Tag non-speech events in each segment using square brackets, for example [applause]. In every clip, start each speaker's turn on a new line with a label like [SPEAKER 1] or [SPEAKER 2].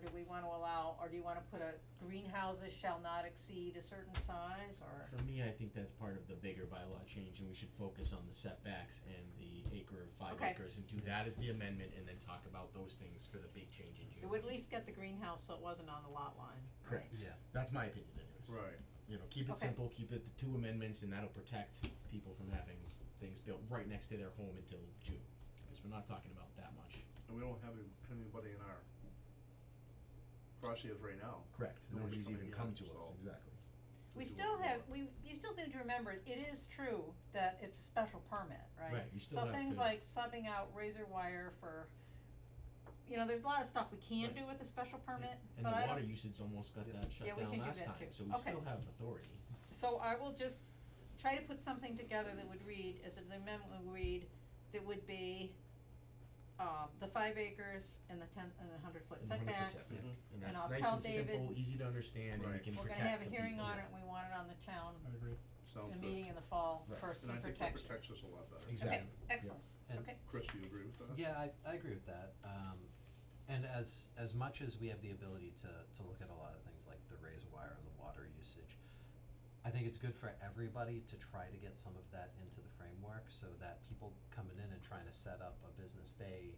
[SPEAKER 1] do we wanna allow, or do you wanna put a greenhouses shall not exceed a certain size, or?
[SPEAKER 2] For me, I think that's part of the bigger bylaw change, and we should focus on the setbacks and the acre of five
[SPEAKER 1] Okay.
[SPEAKER 2] acres, and do that as the amendment, and then talk about those things for the big change in June.
[SPEAKER 1] It would at least get the greenhouse so it wasn't on the lot line.
[SPEAKER 2] Correct. Yeah. That's my opinion anyways.
[SPEAKER 3] Right.
[SPEAKER 2] You know, keep it
[SPEAKER 1] Okay.
[SPEAKER 2] simple, keep it the two amendments, and that'll protect people from having things built right next to their home until June, because we're not talking about that much.
[SPEAKER 3] And we don't have anybody in our crosshairs right now.
[SPEAKER 2] Correct.
[SPEAKER 3] Nobody's
[SPEAKER 2] Nobody's
[SPEAKER 3] coming
[SPEAKER 2] even
[SPEAKER 3] in,
[SPEAKER 2] come to us,
[SPEAKER 3] so-
[SPEAKER 2] exactly.
[SPEAKER 1] We
[SPEAKER 3] do
[SPEAKER 1] still
[SPEAKER 3] what we
[SPEAKER 1] have,
[SPEAKER 3] want.
[SPEAKER 1] we, you still need to remember, it is true that it's a special permit, right?
[SPEAKER 2] Right, you still have
[SPEAKER 1] So things
[SPEAKER 2] to-
[SPEAKER 1] like subbing out razor wire for, you know, there's a lot of stuff we can
[SPEAKER 2] Right.
[SPEAKER 1] do with a special permit,
[SPEAKER 2] And
[SPEAKER 1] but
[SPEAKER 2] the
[SPEAKER 1] I
[SPEAKER 2] water
[SPEAKER 1] don't,
[SPEAKER 2] usage almost got
[SPEAKER 3] Yeah.
[SPEAKER 2] that shut
[SPEAKER 1] Yeah, we
[SPEAKER 2] down
[SPEAKER 1] can do
[SPEAKER 2] last
[SPEAKER 1] that
[SPEAKER 2] time,
[SPEAKER 1] too.
[SPEAKER 2] so we
[SPEAKER 1] Okay.
[SPEAKER 2] still have authority.
[SPEAKER 1] so I will just try to put something together that would read, as the amendment would read, that would be, um, the five acres and the ten, and the hundred foot
[SPEAKER 2] and 100%
[SPEAKER 1] setbacks.
[SPEAKER 2] setback.
[SPEAKER 3] Mhm.
[SPEAKER 2] And
[SPEAKER 1] And I'll
[SPEAKER 2] that's nice
[SPEAKER 1] tell
[SPEAKER 2] and simple,
[SPEAKER 1] David-
[SPEAKER 2] easy to understand, and we
[SPEAKER 3] Right.
[SPEAKER 2] can
[SPEAKER 1] We're
[SPEAKER 2] protect
[SPEAKER 1] gonna have a
[SPEAKER 2] some
[SPEAKER 1] hearing
[SPEAKER 2] people.
[SPEAKER 1] on it, and we want it on the town,
[SPEAKER 4] I agree.
[SPEAKER 3] Sounds
[SPEAKER 1] the
[SPEAKER 3] good.
[SPEAKER 1] meeting in the fall
[SPEAKER 2] Right.
[SPEAKER 1] for
[SPEAKER 3] And
[SPEAKER 1] some
[SPEAKER 3] I think that
[SPEAKER 1] protection.
[SPEAKER 3] protects us a lot better.
[SPEAKER 2] Exactly.
[SPEAKER 1] Okay, excellent,
[SPEAKER 5] And-
[SPEAKER 1] okay,
[SPEAKER 3] Chris, do you agree with that?
[SPEAKER 5] Yeah, I, I agree with that. Um, and as, as much as we have the ability to, to look at a lot of things like the razor wire and the water usage, I think it's good for everybody to try to get some of that into the framework so that people coming in and trying to set up a business, they,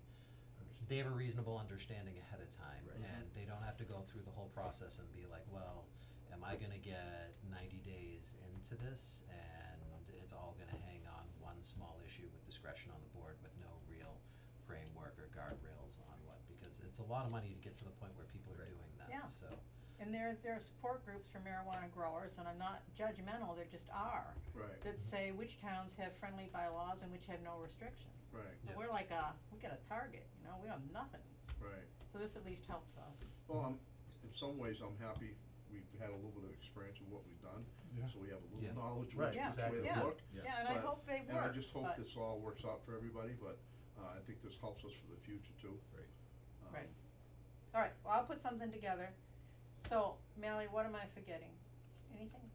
[SPEAKER 2] Understood.
[SPEAKER 5] they have a reasonable understanding ahead of time.
[SPEAKER 2] Right.
[SPEAKER 5] And they don't have to go through the whole process and be like, well, am I gonna get ninety days into this? And it's all gonna hang on one small issue with discretion on the board with no real framework or guardrails on what, because it's a lot of money to get to the point where people are
[SPEAKER 2] Right.
[SPEAKER 5] doing
[SPEAKER 1] Yeah.
[SPEAKER 5] that, so.
[SPEAKER 1] and there, there are support groups for marijuana growers, and I'm not judgmental, there just are,
[SPEAKER 3] Right,
[SPEAKER 1] that say which towns have friendly bylaws and which have no restrictions.
[SPEAKER 3] right,
[SPEAKER 1] So
[SPEAKER 5] Yeah.
[SPEAKER 1] we're like, uh, we got a target, you know, we have nothing,
[SPEAKER 3] right.
[SPEAKER 1] so this at least helps us.
[SPEAKER 3] Well, I'm, in some ways, I'm happy we've had a little bit of experience of what we've done,
[SPEAKER 4] Yeah.
[SPEAKER 3] so we have a
[SPEAKER 5] Yeah.
[SPEAKER 3] little knowledge
[SPEAKER 2] Right,
[SPEAKER 3] which which
[SPEAKER 2] exactly.
[SPEAKER 3] way
[SPEAKER 1] Yeah.
[SPEAKER 3] to look.
[SPEAKER 2] Yeah.
[SPEAKER 1] Yeah, and I
[SPEAKER 3] But-
[SPEAKER 1] hope they
[SPEAKER 3] And I
[SPEAKER 1] work,
[SPEAKER 3] just hope
[SPEAKER 1] but,
[SPEAKER 3] this all works out for everybody, but, uh, I think this helps us for the future too.
[SPEAKER 2] Right.
[SPEAKER 3] Um,
[SPEAKER 1] Right. alright, well, I'll put something together, so, Mallory, what am I forgetting? Anything?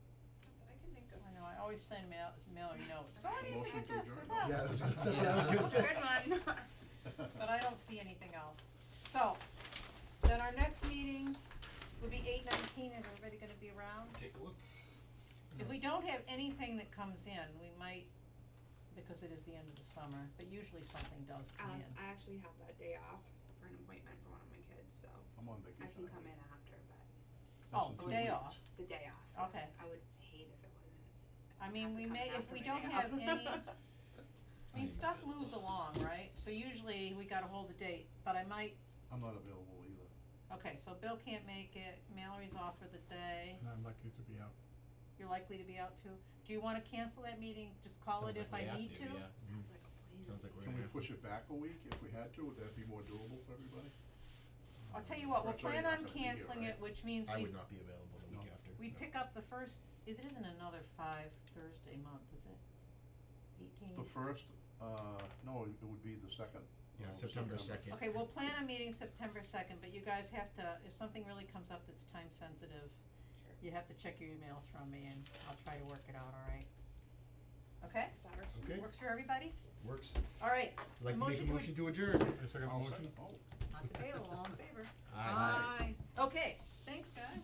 [SPEAKER 6] Not that I can think of.
[SPEAKER 1] I know, I always send Mal- Mallory notes, oh, I didn't
[SPEAKER 3] Motion
[SPEAKER 1] forget
[SPEAKER 3] to
[SPEAKER 1] this or
[SPEAKER 3] adjourn.
[SPEAKER 1] that.
[SPEAKER 2] Yeah, that's, that's what I
[SPEAKER 3] [laughs]
[SPEAKER 2] was gonna
[SPEAKER 6] That's
[SPEAKER 2] say.
[SPEAKER 6] a [laughs] good one.
[SPEAKER 1] but I don't see anything else. So, then our next meeting would be eight nineteen, is everybody gonna be around?
[SPEAKER 2] Take a look.
[SPEAKER 1] If we don't have anything that comes in, we might, because it is the end of the summer, but usually something does come
[SPEAKER 6] Alice, [laughs]
[SPEAKER 1] in.
[SPEAKER 6] I actually have that day off for an appointment for one of my kids, so
[SPEAKER 3] I'm on
[SPEAKER 6] I
[SPEAKER 3] vacation.
[SPEAKER 6] can come in after, but
[SPEAKER 3] That's
[SPEAKER 1] Oh,
[SPEAKER 3] in
[SPEAKER 1] the
[SPEAKER 3] two
[SPEAKER 1] day
[SPEAKER 3] weeks.
[SPEAKER 1] off.
[SPEAKER 6] the day off.
[SPEAKER 1] Okay.
[SPEAKER 6] I would hate if it wasn't.
[SPEAKER 1] I
[SPEAKER 6] have
[SPEAKER 1] mean,
[SPEAKER 6] to
[SPEAKER 1] we
[SPEAKER 6] come
[SPEAKER 1] may,
[SPEAKER 6] after
[SPEAKER 1] if we
[SPEAKER 6] my
[SPEAKER 1] don't
[SPEAKER 6] day
[SPEAKER 1] have
[SPEAKER 6] off. [laughs]
[SPEAKER 1] any, I mean, stuff moves along, right? So usually we gotta hold the date, but I might,
[SPEAKER 3] I'm not available either.
[SPEAKER 1] okay, so Bill can't make it, Mallory's off for the day,
[SPEAKER 4] And I'm lucky to be out.
[SPEAKER 1] you're likely to be out too. Do you wanna cancel that meeting, just call it
[SPEAKER 2] Sounds
[SPEAKER 1] if
[SPEAKER 2] like
[SPEAKER 1] I
[SPEAKER 2] we have
[SPEAKER 1] need
[SPEAKER 2] to, yeah.
[SPEAKER 6] Sounds like a plan.
[SPEAKER 2] Sounds like we're
[SPEAKER 3] Can
[SPEAKER 2] gonna
[SPEAKER 3] we
[SPEAKER 2] have to.
[SPEAKER 3] push it back a week if we had to? Would that be more doable for everybody?
[SPEAKER 1] I'll tell
[SPEAKER 2] Mm-hmm.
[SPEAKER 1] you what, we'll
[SPEAKER 3] Rachel, you're
[SPEAKER 1] plan
[SPEAKER 3] not
[SPEAKER 1] on
[SPEAKER 3] gonna be here,
[SPEAKER 1] canceling
[SPEAKER 3] right?
[SPEAKER 1] it, which means
[SPEAKER 2] I
[SPEAKER 1] we,
[SPEAKER 2] would not be available the week after.
[SPEAKER 1] we
[SPEAKER 3] no.
[SPEAKER 1] pick up the first, it isn't another five Thursday month, is it? Eighteen?
[SPEAKER 2] Mm.
[SPEAKER 3] The first, uh, no, it would be the second. Oh,
[SPEAKER 2] Yeah,
[SPEAKER 3] of
[SPEAKER 2] September second.
[SPEAKER 1] Okay, we'll plan a meeting September second, but you guys have to, if something really comes up that's time sensitive,
[SPEAKER 6] Sure.
[SPEAKER 1] you have to check your emails from me and I'll try to work it out, alright? Okay,
[SPEAKER 6] That works.
[SPEAKER 2] Okay.
[SPEAKER 1] works for everybody?
[SPEAKER 2] Works.
[SPEAKER 1] Alright,
[SPEAKER 2] I'd like to make a
[SPEAKER 1] Motion to-
[SPEAKER 2] motion to adjourn.
[SPEAKER 4] A second
[SPEAKER 3] I'll
[SPEAKER 4] motion?
[SPEAKER 3] sec- Oh.
[SPEAKER 1] not debatable, all in favor?
[SPEAKER 2] Aye.
[SPEAKER 1] Aye. Okay, thanks guys.